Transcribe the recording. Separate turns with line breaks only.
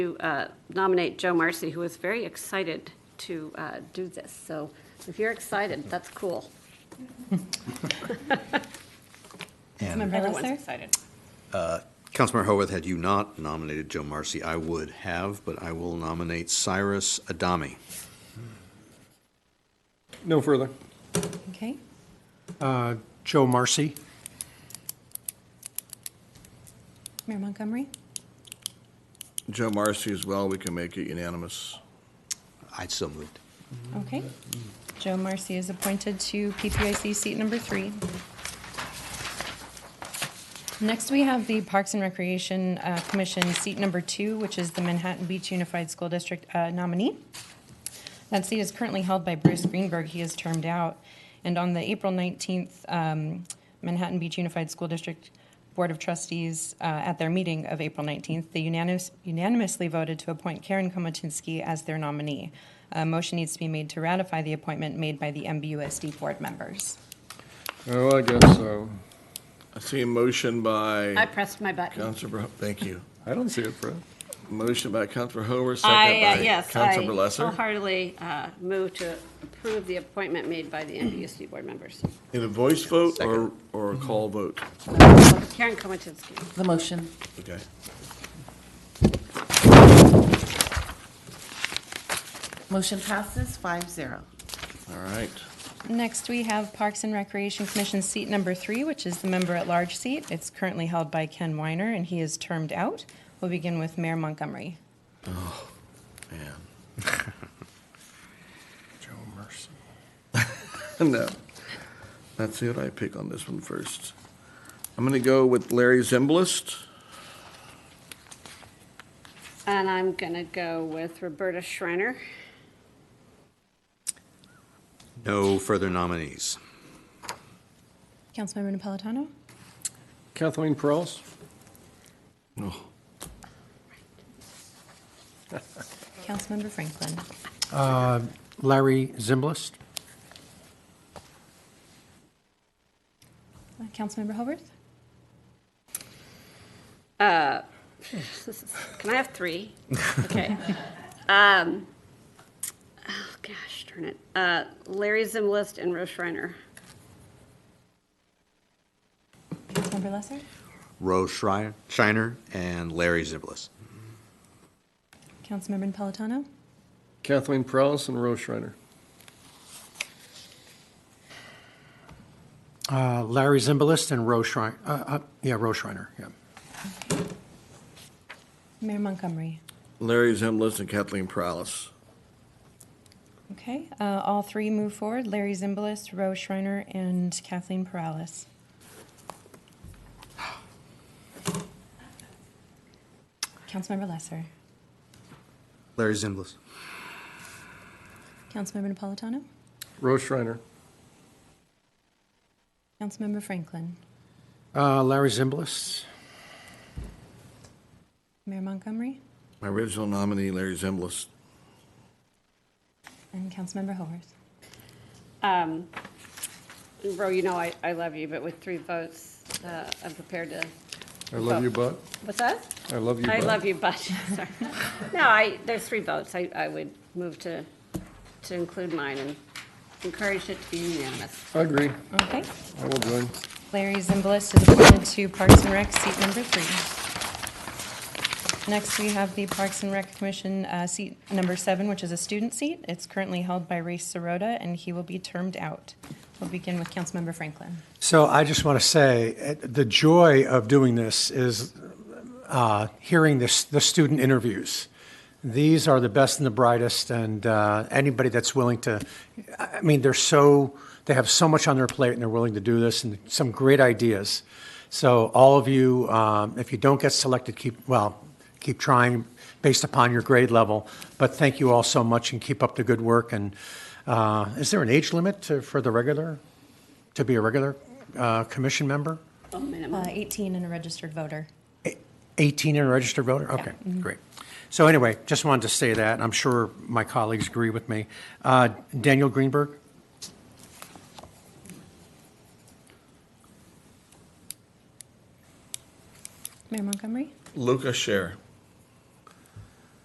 to uh, nominate Joe Marcy, who is very excited to uh, do this. So if you're excited, that's cool.
And
Everyone's
Lesser?
excited.
Councilmember Horwath, had you not nominated Joe Marcy, I would have, but I will nominate Cyrus Adami.
No further.
Okay,
Uh, Joe Marcy.
Mayor Montgomery?
Joe Marcy as well, we can make it unanimous.
I so moved.
Okay. Joe Marcy is appointed to PPIC seat number three. Next, we have the Parks and Recreation uh, Commission, seat number two, which is the Manhattan Beach Unified School District uh, nominee. That seat is currently held by Bruce Greenberg. He is termed out. And on the April 19th um, Manhattan Beach Unified School District Board of Trustees, uh, at their meeting of April 19th, they unanimous- unanimously voted to appoint Karen Komatinsky as their nominee. A motion needs to be made to ratify the appointment made by the MBUSD board members.
Oh, I guess so.
I see a motion
I
by
pressed my button.
Councilor, thank you.
I don't see it, Fred.
Motion by Councilor Hoover, second
I, uh,
by
yes, I
Councilor Lesser.
wholeheartedly uh, move to approve the appointment made by the MBUSD board members.
In a voice vote or, or a call vote?
Karen Komatinsky.
The motion.
Okay.
Motion passes five zero.
All right.
Next, we have Parks and Recreation Commission seat number three, which is the member-at-large seat. It's currently held by Ken Weiner, and he is termed out. We'll begin with Mayor Montgomery.
Man.
Joe Marcy.
No. Let's see what I pick on this one first. I'm going to go with Larry Zimblist.
And I'm going to go with Roberta Schreiner.
No further nominees.
Councilmember Napolitano?
Kathleen Perales.
Oh,
Councilmember Franklin?
Larry Zimblist.
Uh, Councilmember Hobarth?
Can I have three? Okay. Um, Oh, gosh, darn it. Uh, Larry Zimlist and Rose Schreiner.
Councilmember Lesser?
Rose Schreier- Shiner and Larry Ziblis.
Councilmember Napolitano?
Kathleen Perales and Rose Schreiner.
Uh, Larry Zimbalist and Rose Schreiner. Uh, uh, yeah, Rose Schreiner. Yeah.
Mayor Montgomery?
Larry Zimblist and Kathleen Prowlis.
Okay, uh, all three move forward. Larry Zimbalist, Rose Schreiner, and Kathleen Perales. Councilmember Lesser.
Larry Zimbalist.
Councilmember Napolitano.
Rose Schreiner.
Councilmember Franklin.
Uh, Larry Zimbalist.
Mayor Montgomery.
My original nominee, Larry Zimblist.
And Councilmember Hoarth.
Um, Ro, you know I, I love you, but with three votes, uh, I'm prepared to,
I love you, Bud.
what's that?
I love you, Bud.
I love you, but, sorry. No, I, there's three votes. I, I would move to, to include mine and encourage it to be unanimous.
I agree.
Okay.
I will join.
Larry Zimbalist is appointed to Parks and Rec, seat number three. Next, we have the Parks and Rec Commission, uh, seat number seven, which is a student seat. It's currently held by Ray Sirota, and he will be termed out. We'll begin with Councilmember Franklin.
So I just want to say uh, the joy of doing this is uh, hearing this, the student interviews. These are the best and the brightest, and uh, anybody that's willing to, I I mean, they're so, they have so much on their plate and they're willing to do this and some great ideas. So, all of you, um, if you don't get selected, keep, well, keep trying based upon your grade level. But thank you all so much and keep up the good work. And uh, is there an age limit to, for the regular, to be a regular uh, commission member?
Oh, minimum.
Uh, 18 and a registered voter.
18 and a registered voter? Okay, great. So anyway, just wanted to say that. I'm sure my colleagues agree with me. Uh, Daniel Greenberg?
Mayor Montgomery.
Luca Scher.